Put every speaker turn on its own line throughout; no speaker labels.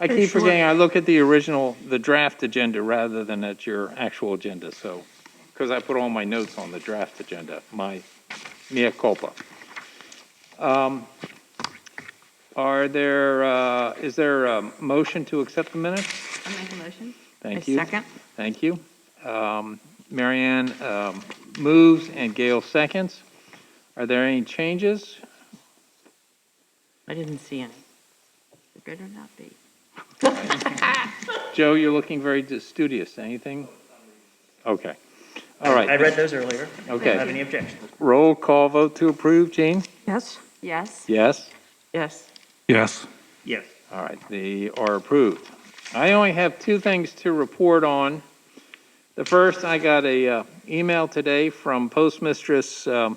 I keep forgetting, I look at the original, the draft agenda rather than at your actual agenda, so, because I put all my notes on the draft agenda, my mea culpa. Um, Are there, uh, is there a motion to accept the minutes?
I'll make a motion.
Thank you.
second.
Thank you. Um, Mary Ann um, moves and Gail seconds. Are there any changes?
I didn't see any. It better not be.
Joe, you're looking very studious. Anything? Okay. All right.
I read those earlier. I don't have
Okay.
any objection.
Roll call vote to approve. Gene?
Yes? Yes.
Yes.
Yes.
Yes.
Yes.
All right, they are approved. I only have two things to report on. The first, I got a uh, email today from postmistress um,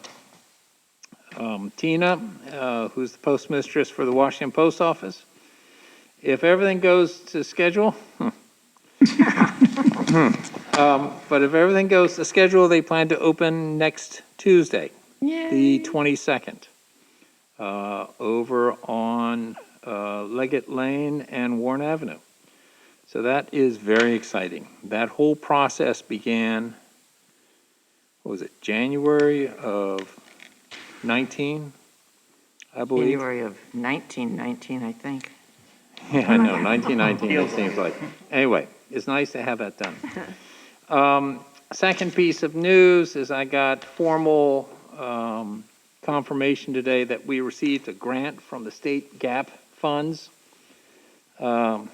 um, Tina, uh, who's the postmistress for the Washington Post Office. If everything goes to schedule, um, but if everything goes to schedule, they plan to open next Tuesday the 22nd, uh, over on uh, Leggett Lane and Warren Avenue. So that is very exciting. That whole process began, what was it, January of 19, I believe?
January of 1919, I think.
Yeah, I know, 1919, it seems like. Anyway, it's nice to have that done. Um, Second piece of news is I got formal um, confirmation today that we received a grant from the state gap funds um,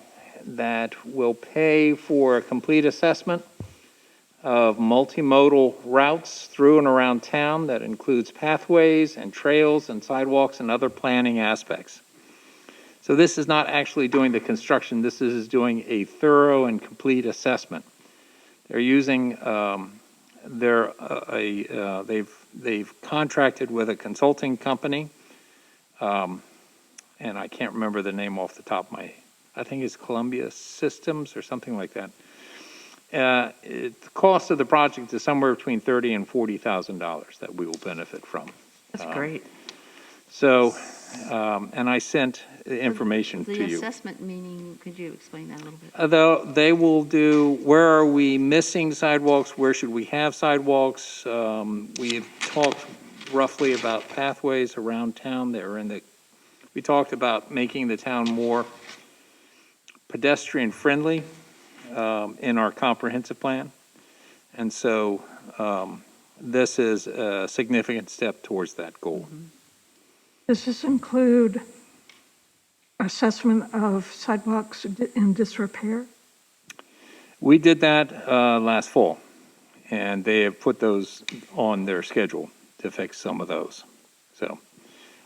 that will pay for a complete assessment of multimodal routes through and around town that includes pathways and trails and sidewalks and other planning aspects. So this is not actually doing the construction, this is doing a thorough and complete assessment. They're using, um, they're, uh, a, uh, they've, they've contracted with a consulting company. um, And I can't remember the name off the top of my, I think it's Columbia Systems or something like that. Uh, it- The cost of the project is somewhere between thirty and forty thousand dollars that we will benefit from.
That's
Uh,
great.
So, um, and I sent the information to
The
you.
assessment meaning, could you explain that a little bit?
Though they will do, where are we missing sidewalks, where should we have sidewalks? Um, We have talked roughly about pathways around town that are in the, we talked about making the town more pedestrian-friendly um, in our comprehensive plan. And so um, this is a significant step towards that goal.
Does this include assessment of sidewalks in disrepair?
We did that uh, last fall, and they have put those on their schedule to fix some of those. So,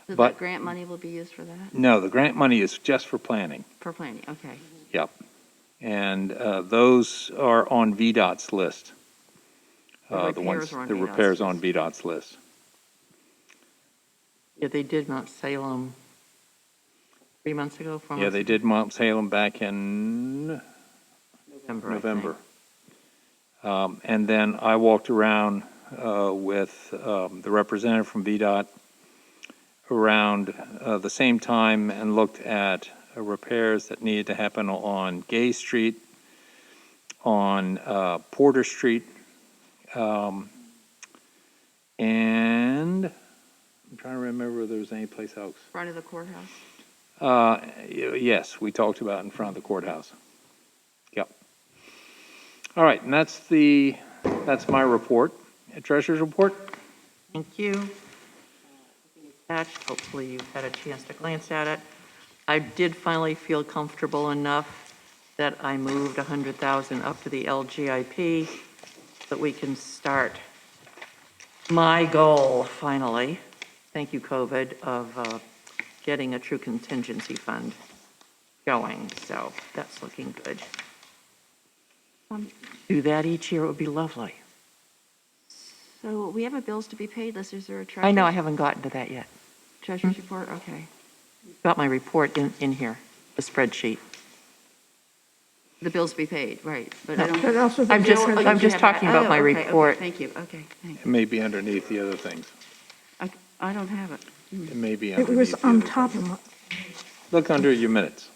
So
But-
that grant money will be used for that,
no, the grant money is just for planning,
for planning, okay.
and uh, those are on VDOT's list.
The
Uh, The ones,
repairs are on
the
VDOT's
repairs on
list.
VDOT's list.
Yeah, they did Mount Salem three months ago, four
Yeah,
months
Uh-huh.
they did Mount Salem back in
November, I think.
November. Um, And then I walked around uh, with um, the representative from VDOT around uh, the same time and looked at uh, repairs that needed to happen on Gay Street, on uh, Porter Street, um, and I'm trying to remember if there was any place else.
Front of the courthouse,
Uh, y- Yes, we talked about in front of the courthouse. Yep. All right, and that's the, that's my report. Treasurer's report?
Thank you. Attached, hopefully you've had a chance to glance at it. I did finally feel comfortable enough that I moved 100,000 up to the LGIP that we can start my goal, finally, thank you, COVID, of uh, getting a true contingency fund going, so that's looking good. Um, Do that each year, it would be lovely.
so we have a bills to be paid list, is there a treasurer's?
I know I Mm-hmm. haven't gotten to that yet.
Treasurer's report, okay.
Got my report in, in here, the spreadsheet.
The bills to be paid, right, but I
But
don't.
also the
I'm just-
Oh,
difference-
you
I'm
do
just
have that.
talking about
Oh,
my
okay, okay,
report.
Thank you, okay, thanks.
It may be underneath the other things.
I, I don't have it.
It may be
It
underneath.
was
the
on
other
top
things.
of, my-
Look under your minutes.